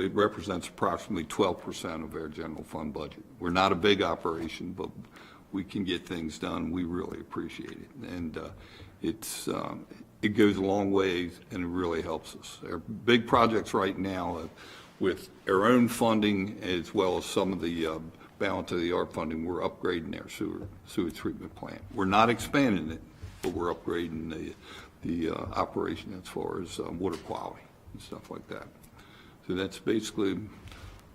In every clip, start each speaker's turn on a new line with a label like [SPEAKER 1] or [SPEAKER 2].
[SPEAKER 1] It represents approximately 12% of our general fund budget. We're not a big operation, but we can get things done. We really appreciate it. And uh, it's, um, it goes a long ways and it really helps us. Our big projects right now uh, with our own funding as well as some of the uh, balance of the ARP funding, we're upgrading our sewer, sewer treatment plant. We're not expanding it, but we're upgrading the, the uh, operation as far as uh, water quality and stuff like that. So that's basically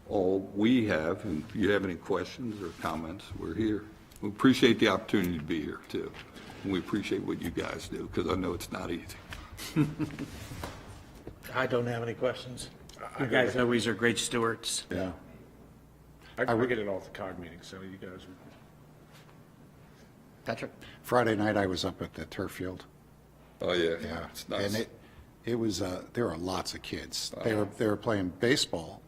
[SPEAKER 1] all we have, and if you have any questions or comments, we're here. We appreciate the opportunity to be here, too. And we appreciate what you guys do, because I know it's not easy.
[SPEAKER 2] I don't have any questions.
[SPEAKER 3] You guys always are great stewards.
[SPEAKER 2] Yeah.
[SPEAKER 4] I, I get it all at the COG meeting, so you guys,
[SPEAKER 3] Patrick?
[SPEAKER 2] Friday night, I was up at the turf field.
[SPEAKER 1] Oh, yeah.
[SPEAKER 2] Yeah.
[SPEAKER 1] It's
[SPEAKER 2] And
[SPEAKER 1] nice.
[SPEAKER 2] it, it was, uh, there were lots of kids. They were, they were playing baseball,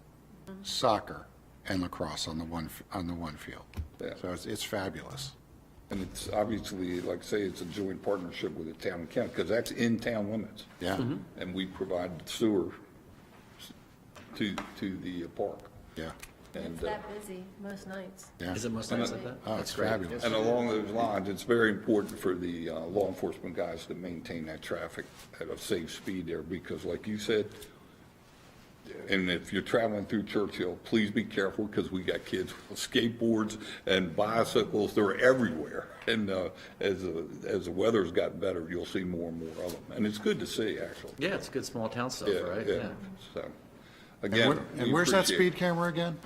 [SPEAKER 2] soccer, and lacrosse on the one, f- on the one field.
[SPEAKER 1] Yeah.
[SPEAKER 2] So it's, it's fabulous.
[SPEAKER 1] And it's obviously, like I say, it's a joint partnership with the town and county, because that's in town limits.
[SPEAKER 2] Yeah. Mhm.
[SPEAKER 1] And we provide sewer to, to the park.
[SPEAKER 2] Yeah.
[SPEAKER 1] And,
[SPEAKER 5] It's
[SPEAKER 1] uh,
[SPEAKER 5] that busy most nights.
[SPEAKER 2] Yeah.
[SPEAKER 3] Is it most nights like that?
[SPEAKER 2] Oh, it's fabulous.
[SPEAKER 1] And along those lines, it's very important for the uh, law enforcement guys to maintain that traffic at a safe speed there, because like you said, and if you're traveling through Churchill, please be careful, because we got kids with skateboards and bicycles, they're everywhere. And uh, as, the- as the weather's gotten better, you'll see more and more of them, and it's good to see, actually.
[SPEAKER 3] Yeah, it's good small town stuff, right?
[SPEAKER 1] So,
[SPEAKER 2] And
[SPEAKER 1] again.
[SPEAKER 2] where-
[SPEAKER 1] we
[SPEAKER 2] and where's that
[SPEAKER 1] appreciate it.
[SPEAKER 2] speed camera again?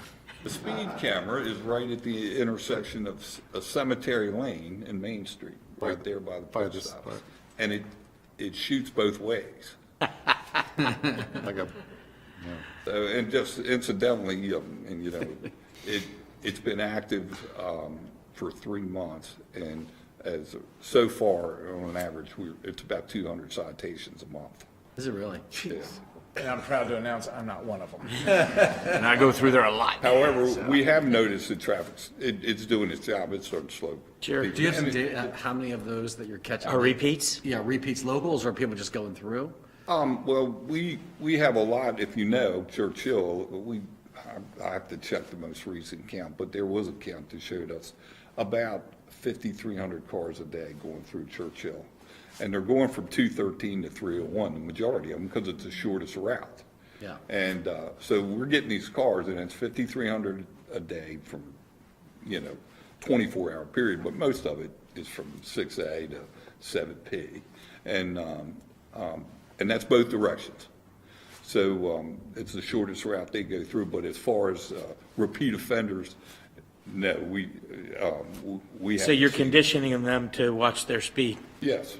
[SPEAKER 1] The speed camera is right at the intersection of C- uh, Cemetery Lane and Main Street, right there by the
[SPEAKER 2] by the-
[SPEAKER 1] post office. And it, it shoots both ways.
[SPEAKER 2] Like a,
[SPEAKER 1] So, and just incidentally, um, and you know, it, it's been active, um, for three months. And as, so far, on an average, we're, it's about two hundred citations a monve
[SPEAKER 3] Is it really?
[SPEAKER 4] and I'm proud to announce I'm not one of them.
[SPEAKER 3] And I go through there a lot.
[SPEAKER 1] However, we have noticed that traffic's, it, it's doing its job. It's starting to slow.
[SPEAKER 3] Jared, do you have some data, how many of those that you're catching? Are repeats? Yeah, repeats locals or people just going through?
[SPEAKER 1] Um, well, we, we have a lot, if you know, Churchill, we, I, I have to check the most recent count, but there was a count that showed us about fifty-three hundred cars a day going through Churchill. And they're going from two thirteen to three oh one, the majority of them, because it's the shortest route.
[SPEAKER 3] Yeah.
[SPEAKER 1] And, uh, so we're getting these cars and it's fifty-three hundred a day from, you know, twenty-four hour period, but most of it is from six A to seven P. And, um, um, and that's both directions. So, um, it's the shortest route they go through, but as far as, uh, repeat offenders, no, we, um, w- we.
[SPEAKER 6] So
[SPEAKER 1] haven't
[SPEAKER 6] you're
[SPEAKER 1] seen-
[SPEAKER 6] conditioning them to watch their speed.
[SPEAKER 1] Yes.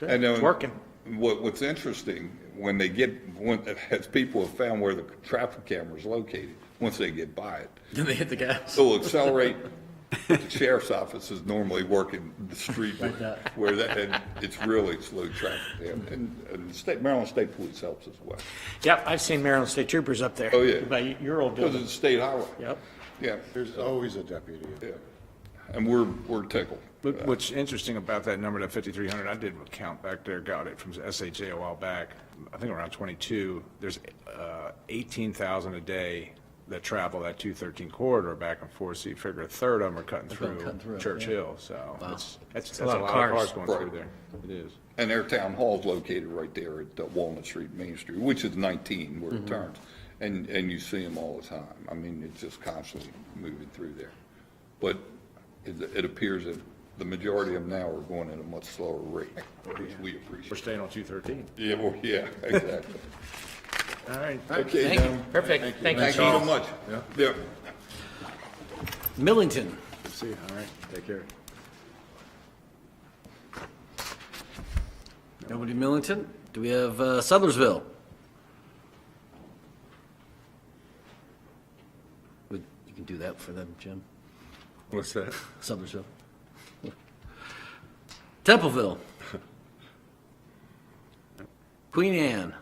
[SPEAKER 1] And then
[SPEAKER 6] It's working.
[SPEAKER 1] What, what's interesting, when they get, when, as people have found where the traffic camera is located, once they get by it,
[SPEAKER 3] Then they hit the gas.
[SPEAKER 1] it'll accelerate. The sheriff's office is normally working the street where that, and it's really slow traffic there. And, and the state, Maryland State Police helps as well.
[SPEAKER 6] Yep, I've seen Maryland State Troopers up there.
[SPEAKER 1] Oh, yeah.
[SPEAKER 6] By your old
[SPEAKER 1] Because
[SPEAKER 6] building.
[SPEAKER 1] it's a state highway.
[SPEAKER 6] Yep.
[SPEAKER 1] Yeah,
[SPEAKER 2] there's always a deputy.
[SPEAKER 1] yeah. And we're, we're tickled.
[SPEAKER 4] But What's interesting about that number, that 5,300, I did a count back there, got it from SHA a while back, I think around 22, there's uh, 18,000 a day that travel that 213 corridor back and forth, so you figure a third of them are cutting
[SPEAKER 3] cutting through,
[SPEAKER 4] through
[SPEAKER 3] yeah.
[SPEAKER 4] Churchill, so it's, that's that's a
[SPEAKER 6] lot of
[SPEAKER 4] lot of
[SPEAKER 6] cars.
[SPEAKER 4] cars going through
[SPEAKER 1] Right.
[SPEAKER 4] there. It is.
[SPEAKER 1] And their town hall's located right there at uh, Walnut Street, Main Street, which is 19 where
[SPEAKER 6] Mm-hmm.
[SPEAKER 1] it turns. And, and you see them all the time. I mean, it's just constantly moving through there. But it, it appears that the majority of them now are going at a much slower rate, which we
[SPEAKER 4] We're
[SPEAKER 1] appreciate.
[SPEAKER 4] staying on 213.
[SPEAKER 1] Yeah, well, yeah, exactly.
[SPEAKER 4] All right.
[SPEAKER 1] Okay,
[SPEAKER 3] Thank you.
[SPEAKER 1] now,
[SPEAKER 6] Perfect. Thank you,
[SPEAKER 1] thank you so
[SPEAKER 6] Charles.
[SPEAKER 1] much. Yeah.
[SPEAKER 3] Millington.
[SPEAKER 4] See, you. all right, take care.
[SPEAKER 3] Nobody in Millington? Do we have uh, Sellersville? Would- You can do that for them, Jim.
[SPEAKER 4] What's that?
[SPEAKER 3] Sellersville. Templeville. Queen Anne.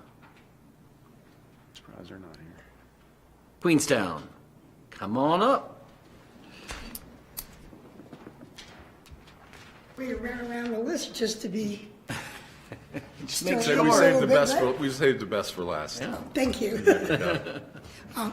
[SPEAKER 4] Surprised they're not here.
[SPEAKER 3] Queenstown. Come on up.
[SPEAKER 7] We ran around the list just to be
[SPEAKER 8] Make
[SPEAKER 9] story
[SPEAKER 4] So
[SPEAKER 9] a
[SPEAKER 4] we saved
[SPEAKER 9] little
[SPEAKER 4] the
[SPEAKER 9] bit
[SPEAKER 4] best for,
[SPEAKER 9] better.
[SPEAKER 4] we saved the best for last.
[SPEAKER 9] Thank you.